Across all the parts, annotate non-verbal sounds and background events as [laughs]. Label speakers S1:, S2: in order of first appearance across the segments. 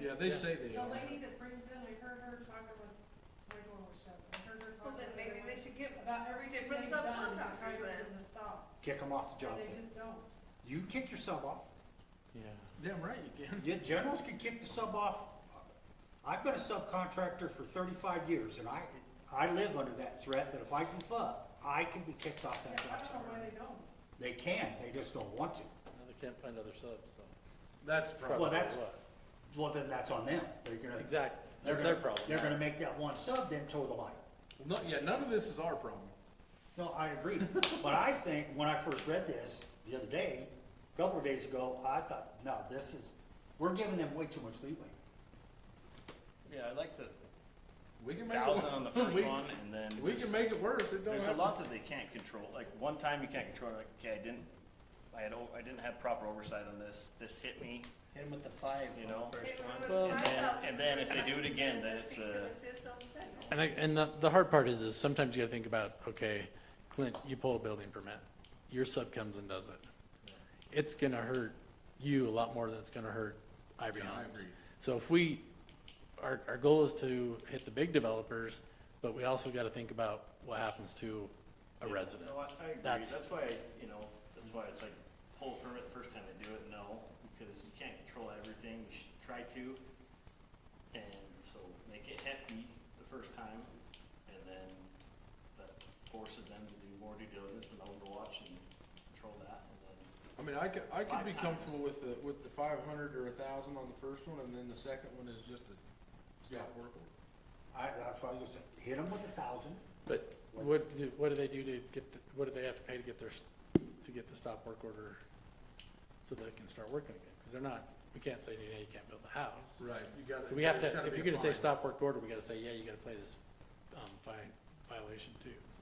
S1: Yeah, they say they
S2: The
S1: are.
S2: lady that brings in, I heard her talking with, my door was shut, I heard her
S3: Well,
S2: talking.
S3: then
S2: to
S3: maybe they
S2: everyone
S3: should give,
S2: About everything
S3: different
S2: they've done to try to
S3: subcontractors
S2: get
S3: then.
S2: them to stop,
S4: Kick them off
S2: and
S4: the job
S2: they
S4: then.
S2: just don't.
S4: You kick your sub off.
S5: Yeah.
S1: Damn right you can.
S4: Your generals can kick the sub off. I've been a subcontractor for thirty-five years and I, I live under that threat that if I goof up, I can be kicked off that
S2: Yeah, I
S4: job
S2: don't know why
S4: site.
S2: they don't.
S4: They can, they just don't want to.
S5: Now they can't find other subs, so.
S1: That's probably.
S4: Well, that's-
S5: what-
S4: Well, then that's on them. They're gonna.
S5: Exactly,
S4: they're
S5: that's their
S4: gonna-
S5: problem.
S4: They're gonna make that one sub then toe the line.
S1: No, yeah, none of this is our problem.
S4: No,
S5: [laughs]
S4: I agree, but I think when I first read this the other day, a couple of days ago, I thought, no, this is, we're giving them way too much leeway.
S6: Yeah, I like the
S1: We can make it. [laughs]
S6: thousand on the first
S1: we-
S6: one, and then
S1: We
S6: there's-
S1: can make it worse, it don't
S6: There's a
S1: have,
S6: lot that they can't control. Like one time you can't control. Like okay, I didn't, I had, o- I didn't have proper oversight on this. This hit me.
S7: Hit him with the five
S6: You
S7: on
S6: know?
S7: the first one.
S6: Well, and then- and then if they do it again, then it's, uh,
S5: And I, and the, the hard part is, is sometimes you gotta think about, okay, Clint, you pull a building permit, your sub comes and does it. It's gonna hurt you a lot more than it's gonna hurt Ivory
S1: Yeah, I
S5: Homes.
S1: agree.
S5: So if we, our, our goal is to hit the big developers, but we also gotta think about what happens to a
S6: Yeah,
S5: resident.
S6: No, I, I agree.
S5: That's-
S6: That's why, you know, that's why it's like, pull a permit the first time they do it, no, because you can't control everything, you should try to. And so make it hefty the first time, and then that forces them to do more due diligence and overwatch and control that, and then.
S1: I mean, I could, I could
S6: Five
S1: be
S6: times.
S1: comfortable with the, with the five hundred or a thousand on the first one, and then the second one is just a stop work order.
S4: I, that's why I was gonna say, hit them with a thousand,
S5: But what, do- what do they do to get, the- what do they have to pay to get their, s- to get the stop work order so they can start working again? Because they're not, we can't say, yeah, you can't build the house.
S1: Right, you gotta.
S5: So we have
S1: there's
S5: to,
S1: gotta
S5: if
S1: be
S5: you're
S1: a
S5: gonna say
S1: fine.
S5: stop work order, we gotta say, yeah, you gotta play this, um, vi- violation too, so.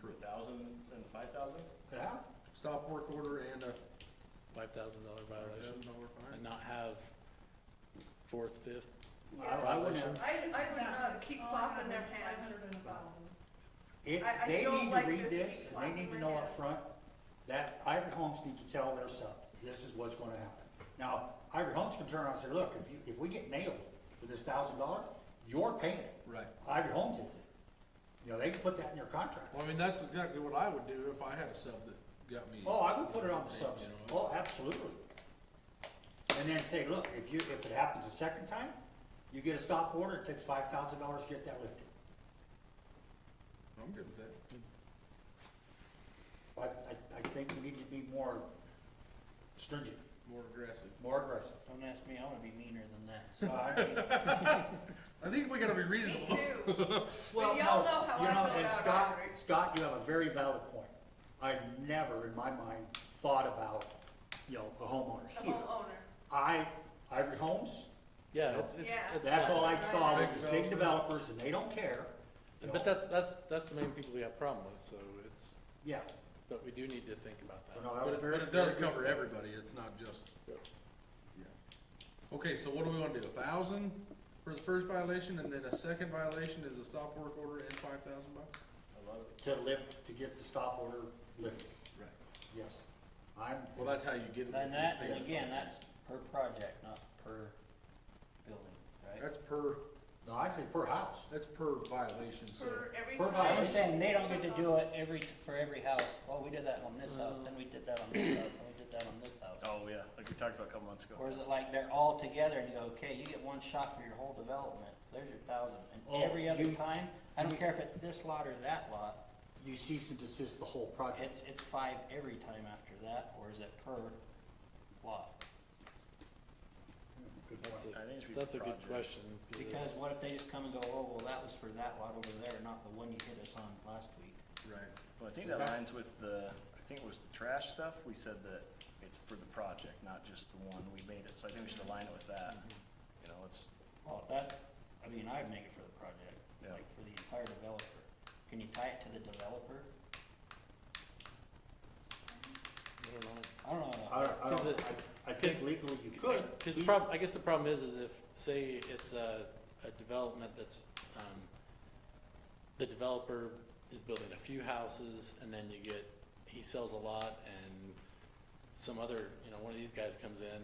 S6: True. Thousand and five thousand?
S4: yeah?
S1: Stop work order and a
S5: Five thousand dollar
S1: thousand
S5: violation,
S1: dollar
S5: and
S1: fine.
S5: not have fourth, fifth,
S4: I, I wouldn't have,
S2: I just
S3: I
S2: think
S3: would
S2: that's
S3: not keep
S2: all I
S3: slapping
S2: have
S3: their
S2: is
S3: hands.
S2: 500 and 1,000.
S4: if,
S3: I- I
S4: they
S3: don't
S4: need to
S3: like
S4: read
S3: this
S4: this,
S3: piece
S4: and they need to
S3: right
S4: know
S3: now.
S4: up front that Ivory Homes needs to tell their sub, this is what's gonna happen. Now, Ivory Homes can turn around and say, look, if you, if we get nailed for this thousand dollars, you're paying it.
S1: Right.
S4: Ivory Homes is it. You know, they can put that in their contract.
S1: Well, I mean, that's exactly what I would do if I had a sub that got me.
S4: Oh, I would put it on the subs,
S1: You know,
S4: oh, absolutely. And then say, look, if you, if it happens a second time, you get a stop order, it takes five thousand dollars to get that lifted.
S1: I'm good with that.
S4: I, I, I think we need to be more stringent,
S1: More aggressive.
S4: more aggressive.
S7: Don't ask me, I wanna be meaner than that.
S1: [laughs]
S4: So I-
S1: I think we gotta be
S3: Me
S1: reasonable.
S3: too.
S4: Well,
S3: y'all
S4: no,
S3: know how
S4: you
S3: I
S4: know,
S3: feel
S4: and
S3: about
S4: Scott,
S3: Ivory.
S4: Scott, you have a very valid point. I never in my mind thought about, you know, the homeowner
S3: The
S4: here.
S3: homeowner.
S4: I, Ivory Homes,
S5: yeah, it's, it's,
S3: Yeah.
S5: it's.
S4: That's
S5: not-
S4: all I saw was these big developers and they don't care. you know.
S5: But that's, that's, that's the main people we have problem with, so it's,
S4: Yeah,
S5: but we do need to think about
S4: so
S5: that.
S4: no, that
S1: But
S4: was
S1: it-
S4: very.
S1: But it does
S4: very good.
S1: cover everybody, it's not just.
S5: Yeah.
S1: Yeah. Okay, so what do we wanna do, a thousand for the first violation, and then a second violation is a stop work order and five thousand bucks?
S6: I love it.
S4: To lift, to get the stop order lifted,
S1: Right.
S4: yes. I'm,
S1: Well, that's how you get it.
S7: And that,
S1: Yeah.
S7: and again, that's per project, not per building, right?
S1: That's per,
S4: no, I say per house.
S1: that's per violation, so.
S3: For every
S4: Per
S3: time.
S7: I'm saying they don't get to do it every, for every house, oh, we did that on this house, then we did that on this house, then we did that on this house.
S6: Oh, yeah, like we talked about a couple months ago.
S7: Or is it like they're all together and you go, okay, you get one shot for your whole development, there's your thousand,
S4: Oh,
S7: and every other
S4: you-
S7: time, I don't care if it's this lot or that lot,
S4: You cease and desist the whole project.
S7: It's, it's five every time after that, or is it per lot?
S4: Good
S5: That's
S4: point.
S6: I think it should
S5: a,
S6: be
S5: that's a good question.
S6: project.
S5: 'cause
S7: Because
S5: it's-
S7: what if they just come and go, oh, well, that was for that lot over there, not the one you hit us on last week?
S1: Right.
S6: Well, I think that aligns with the, I think it was the trash stuff, we said that it's for the project, not just the one we made it, so I think we should align it with that. You know, it's,
S7: Mm-hmm. Well, that, I mean, I'd make it for the project,
S6: Yeah.
S7: like for the entire developer. Can you tie it to the developer?
S5: I don't know.
S7: I don't
S4: I,
S7: know.
S4: don't- I
S5: Is
S4: don't,
S5: it-
S4: I, I think
S5: is-
S4: legally you could.
S5: Because the problem, I guess the problem is, is if, say, it's a, a development that's, um, the developer is building a few houses, and then you get, he sells a lot, and some other, you know, one of these guys comes in,